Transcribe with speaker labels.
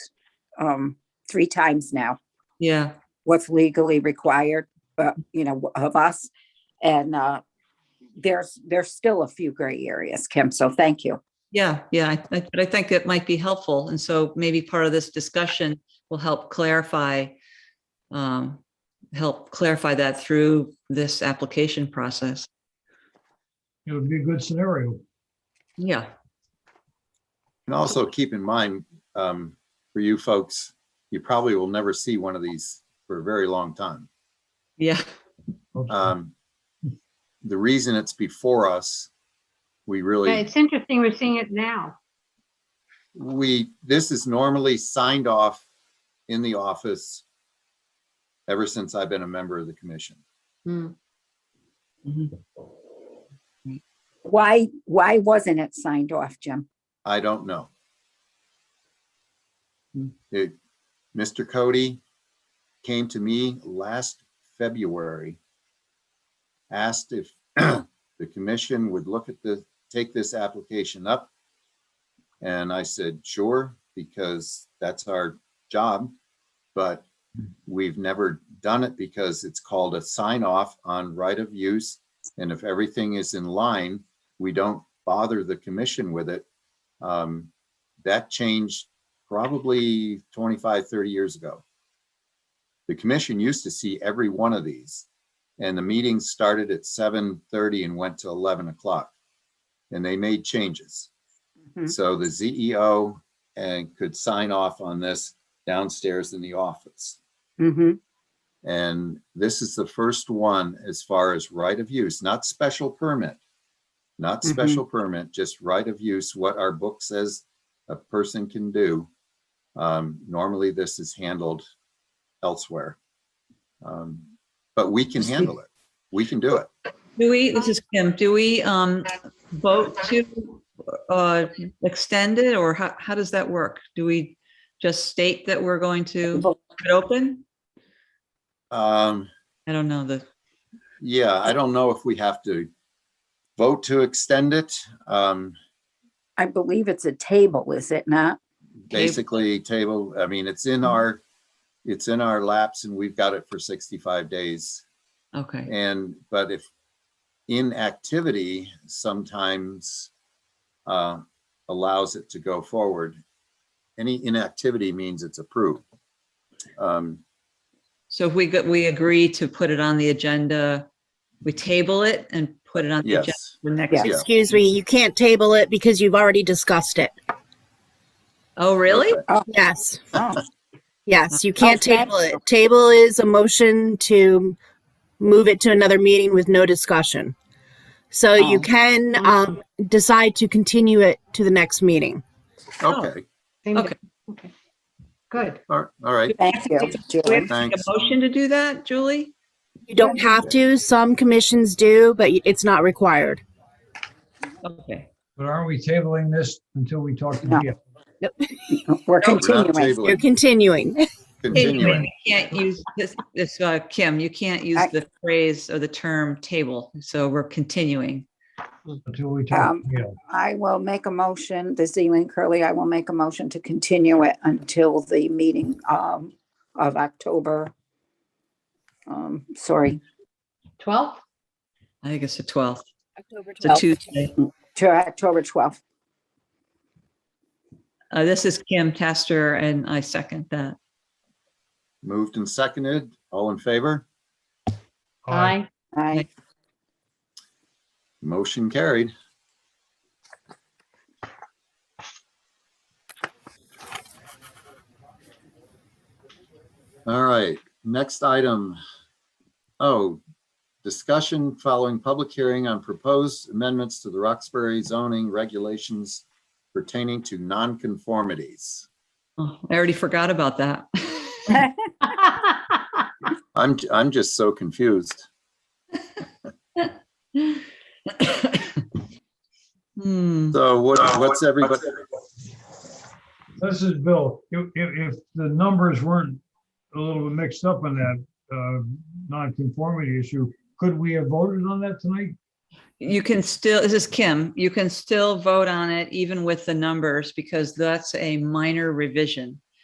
Speaker 1: um, three times now,
Speaker 2: Yeah,
Speaker 1: what's legally required, but, you know, of us. And, uh, there's, there's still a few gray areas, Kim, so thank you.
Speaker 2: yeah, yeah. I- I- But I think that might be helpful. And so maybe part of this discussion will help clarify, um, help clarify that through this application process.
Speaker 3: It would be a good scenario.
Speaker 2: Yeah,
Speaker 4: And also keep in mind, um, for you folks, you probably will never see one of these for a very long time.
Speaker 2: yeah,
Speaker 4: Um, the reason it's before us, we
Speaker 5: Yeah,
Speaker 4: really,
Speaker 5: It's interesting, we're seeing it now.
Speaker 4: we, this is normally signed off in the office ever since I've been a member of the commission.
Speaker 5: Mm.
Speaker 2: Mhm.
Speaker 1: Why, why wasn't it signed off, Jim?
Speaker 4: I don't know.
Speaker 2: Hmm.
Speaker 4: It, Mr. Cody came to me last February, asked if the commission would look at the, take this application up. And I said, sure, because that's our job, but we've never done it because it's called a sign off on right of use. And if everything is in line, we don't bother the commission with it um, that changed probably 25, 30 years ago. The commission used to see every one of these and the meetings started at 7:30 and went to 11 o'clock. And they made changes.
Speaker 1: Mhm.
Speaker 4: So the CEO and eh, could sign off on this downstairs in the office.
Speaker 1: Mm-hmm.
Speaker 4: And this is the first one as far as right of use, not special permit. Not
Speaker 1: Mhm.
Speaker 4: special permit, just right of use, what our book says a person can do. Um, normally this is handled elsewhere. Um, but we can handle it. We can do it.
Speaker 2: Do we, this is Kim, do we um vote to uh extend it or how, how does that work? Do we just state that we're going to leave it open?
Speaker 4: Um,
Speaker 2: I don't know the,
Speaker 4: yeah, I don't know if we have to vote to extend it. Um,
Speaker 1: I believe it's a table, is it not?
Speaker 2: Table.
Speaker 4: basically table, I mean, it's in our, it's in our laps and we've got it for 65 days.
Speaker 2: okay,
Speaker 4: And, but if inactivity sometimes uh, allows it to go forward, any inactivity means it's approved. Um,
Speaker 2: so if we, go- we agree to put it on the agenda, we table it and put it on the agenda
Speaker 4: Yes,
Speaker 2: for
Speaker 1: Yeah.
Speaker 2: next,
Speaker 4: Yeah.
Speaker 6: Excuse me, you can't table it because you've already discussed it.
Speaker 2: oh, really?
Speaker 4: Okay.
Speaker 6: Yes,
Speaker 1: Oh,
Speaker 6: yes, you can't
Speaker 1: Okay.
Speaker 6: table it. Table is a motion to move it to another meeting with no discussion. So you
Speaker 1: Oh.
Speaker 6: can um, decide to continue it to the next meeting.
Speaker 4: okay,
Speaker 5: Same
Speaker 2: Okay.
Speaker 5: di- Okay. Good.
Speaker 4: all all right,
Speaker 1: thank you,
Speaker 2: We have
Speaker 1: Jim.
Speaker 2: to make
Speaker 4: Thanks.
Speaker 2: a motion to do that, Julie?
Speaker 6: You don't have to, some commissions do, but it's not required.
Speaker 2: Okay,
Speaker 3: But aren't we tabling this until we talk to
Speaker 1: No.
Speaker 3: Jeff?
Speaker 1: We're
Speaker 4: we're not
Speaker 1: continuing.
Speaker 6: You're
Speaker 4: tabling,
Speaker 6: continuing.
Speaker 4: continuing.
Speaker 2: Anyway, you can't use this, this, uh, Kim, you can't use
Speaker 1: I-
Speaker 2: the phrase or the term table, so we're continuing.
Speaker 3: Until we talk
Speaker 1: Um,
Speaker 3: to Jeff?
Speaker 1: I will make a motion, the Zealand Curly, I will make a motion to continue it until the meeting um of October. Um, sorry,
Speaker 5: 12?
Speaker 2: I think it's the 12th, it's a
Speaker 1: Well-
Speaker 2: Tuesday.
Speaker 1: to October twelfth.
Speaker 2: Uh, this is Kim Taster and I second that.
Speaker 4: Moved and seconded, all in favor,
Speaker 5: Aye.
Speaker 1: I,
Speaker 4: motion carried. All right, next item. Oh, discussion following public hearing on proposed amendments to the Roxbury zoning regulations pertaining to nonconformities.
Speaker 2: Oh, I already forgot about that.
Speaker 4: I'm, I'm just so confused.
Speaker 2: Hmm,
Speaker 4: So what, what's everybody,
Speaker 3: This is Bill. If, if, if the numbers weren't a little bit mixed up on that, uh, non-conformity issue, could we have voted on that tonight?
Speaker 2: you can still, this is Kim, you can still vote on it even with the numbers because that's a minor revision.